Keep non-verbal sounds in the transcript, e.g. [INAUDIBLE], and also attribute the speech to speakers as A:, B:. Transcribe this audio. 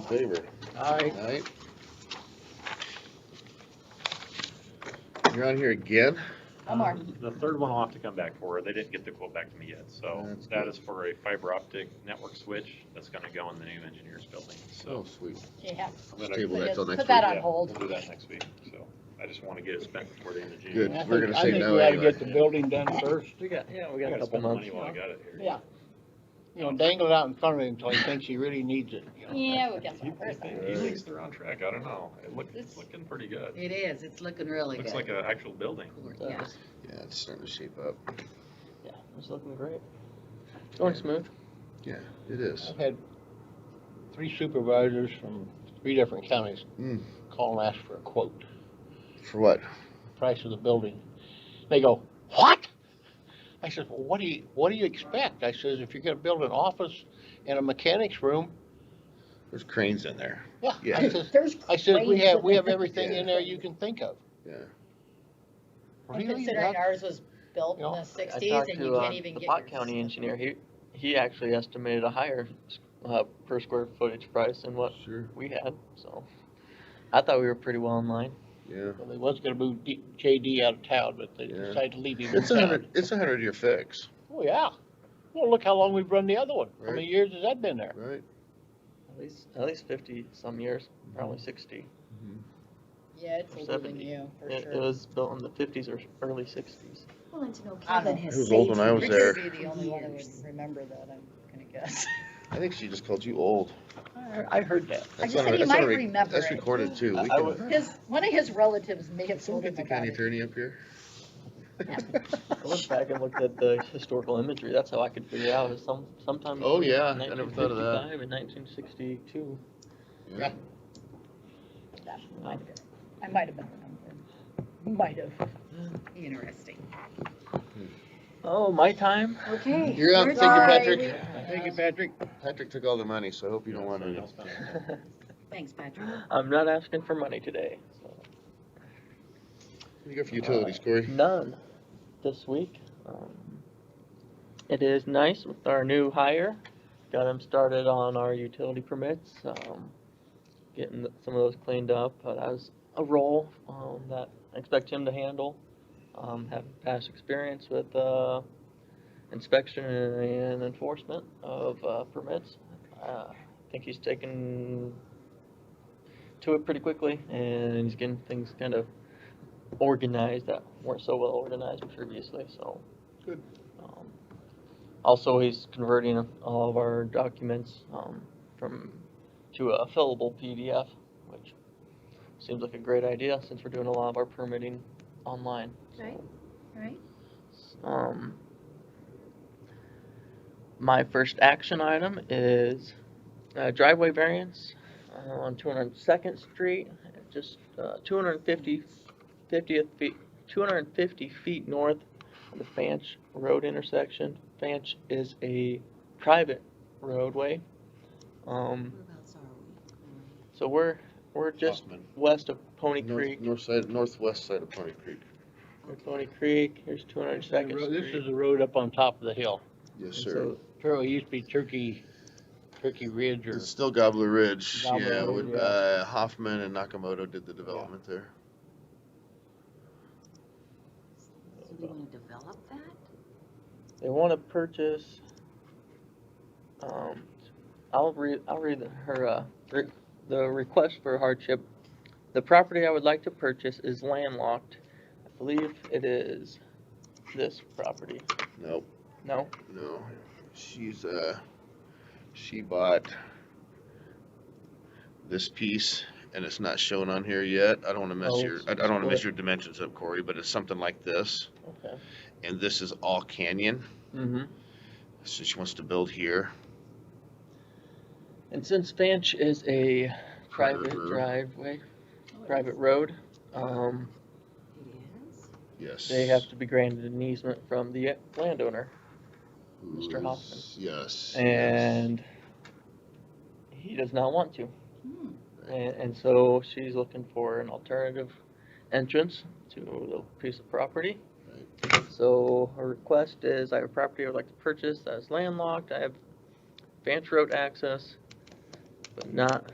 A: favor?
B: Aye.
A: Aye. You're on here again?
C: Omar.
D: Um, The third one I'll have to come back for. They didn't get the quote back to me yet, so
A: That's
D: that
A: good.
D: is for a fiber optic network switch that's gonna go in the new engineers building,
A: Oh,
D: so.
A: sweet.
C: Yeah.
D: I'm
A: Just
D: gonna-
A: table that till
C: Put
A: next
C: that
A: week.
C: on
D: yeah,
C: hold.
D: We'll do that next week, so I just wanna get it spent before the end of June.
A: Good.
B: And I
A: We're
B: think-
A: gonna say no
B: I think
A: anyway.
B: we ought to get the building done first. We got, yeah, we
D: I
B: got a
D: gotta
B: couple
D: spend the
B: months.
D: money while I got it here.
C: Yeah.
B: You know, dangle it out in front of him until he thinks he really needs it. you know.
C: Yeah, we got
D: He-
C: some
D: He
C: person.
D: think- he thinks they're on track. I don't know. It look, it's
C: It's-
D: looking pretty good.
E: It is, it's looking really good.
D: Looks like an actual building.
E: Yeah.
A: Yeah, it's starting to shape up.
B: Yeah, It's looking great.
F: Going smooth.
A: Yeah, it is.
B: I've had three supervisors from three different counties
A: Mm.
B: call and ask for a quote.
A: For what?
B: price of the building. They go, what? I says, well, what do you, what do you expect? I says, if you're gonna build an office and a mechanic's room,
A: There's cranes in there.
B: yeah. I
A: Yeah.
B: says,
C: There's
B: I says, we
C: cranes
B: have,
C: in
B: we have
C: there.
B: everything in there you can think of.
A: Yeah.
C: And
B: Really?
C: Considering
B: Not-
C: ours was built in
B: You know,
C: the
F: I
C: sixties
F: talked
C: and
F: to,
C: you can't
F: um,
C: even get.
F: The
C: your
F: Pot County
C: system.
F: engineer, he, he actually estimated a higher, uh, per square footage price than what
A: Sure.
F: we had, so. I thought we were pretty well in line.
A: Yeah.
B: Well, They was gonna move D- JD out of town, but they
A: Yeah.
B: decided to leave him in
A: It's a
B: town.
A: hundred, it's a hundred year fix,
B: Oh, yeah. Well, look how long we've run the other one. How
A: Right.
B: many years has that been there?
A: right?
F: At least, at least fifty some years, probably
C: Mm-hmm.
F: sixty.
C: Yeah, it's older than
F: 70.
C: you, for
F: It, it
B: uh,
C: sure.
F: was built in the fifties or early sixties.
G: Well, and to know
C: I
G: Kevin
C: don't-
G: has
A: It was
G: saved
A: old when I was
G: you
A: there.
C: Rick would be the
G: for
C: only one that would
E: [LAUGHS]
G: years.
C: remember that, I'm gonna guess. [LAUGHS]
A: I think she just called you old.
B: I heard that.
C: I
A: That's
C: just
A: on
C: said
A: a-
C: you
A: that's on a
C: might
A: re-
C: remember
A: That's
C: it.
A: recorded too.
F: I-
A: We
F: I
A: can-
F: would-
C: His, one of his relatives may
A: Can
C: have
A: we
C: told
A: get
C: him
A: the
C: about
A: county
C: it.
A: attorney up here?
C: Yeah.
F: I went back and looked at the historical imagery, that's how I could figure out, it was some, sometime.
A: Oh,
F: between
A: yeah, I never thought of that.
F: 1955 And nineteen sixty-two.
A: Yeah.
C: Yeah, might have been. I might have been remembering. Might have.
E: Interesting.
F: Oh, my time? [LAUGHS]
G: Okay.
A: You're up,
G: we're
A: thank you,
G: done.
A: Patrick.
B: Thank you, Patrick.
A: Patrick took all the money, so I hope you don't want
D: Somebody
A: any.
D: else found it.
E: Thanks, Patrick.
F: I'm not asking for money today, so.
A: You go for utilities, Corey.
F: None this week. Um, It is nice with our new hire. Got him started on our utility permits, um, getting th- some of those cleaned up, but that was a role, um, that I expect him to handle. Um, have past experience with, uh, inspection and enforcement of, uh, permits. Uh, I think he's taken to it pretty quickly and he's getting things kind of organized that weren't so well organized previously, so.
B: Good.
F: Um, Also, he's converting all of our documents, um, from, to a fillable PDF, which seems like a great idea since we're doing a lot of our permitting online. so.
G: Right. Right?
F: Um, my first action item is uh, driveway variance uh, on 202nd Street, just uh, 250, 50th feet, 250 feet north of the Fanch Road intersection. Fanch is a private roadway, um,
E: Whereabouts are
F: so we're we're just
A: Hoffman.
F: west of Pony
A: North-
F: Creek.
A: North side, northwest side of Pony Creek.
F: We're Pony Creek. Here's 202nd Street.
B: This is the road up on top of the hill.
A: Yes,
F: And
A: sir.
F: so
B: Apparently it used to be Turkey, Turkey Ridge or.
A: It's still Gobbler Ridge,
B: Gobbler
A: yeah,
B: Ridge,
A: with,
B: yeah.
A: uh, Hoffman and Nakamoto did the development there.
E: we? So they wanna develop that?
F: They want to purchase. Um, I'll read. I'll read her uh, re- the request for hardship. The property I would like to purchase is landlocked. I believe it is this property.
A: Nope,
F: No,
A: no, she's, uh, she bought this piece, and it's not shown on here yet, I don't wanna
F: Oh,
A: mess your,
F: it's-
A: I I don't wanna mess
F: split.
A: your dimensions up, Corey, but it's something like this,
F: okay.
A: and this is all canyon,
F: Mm-hmm.
A: so she wants to build here.
F: And since Fanch is a private
A: Private.
F: driveway, private road, um,
E: It is?
A: Yes.
F: they have to be granted an easement from the landowner. Mr.
A: Who's-
F: Hoffman.
A: Yes. yes.
F: and he does not want to.
E: Hmm.
F: And, and so she's looking for an alternative entrance to the piece of property. So her request is, I have a property I would like to purchase that is landlocked, I have Vance Road access, but not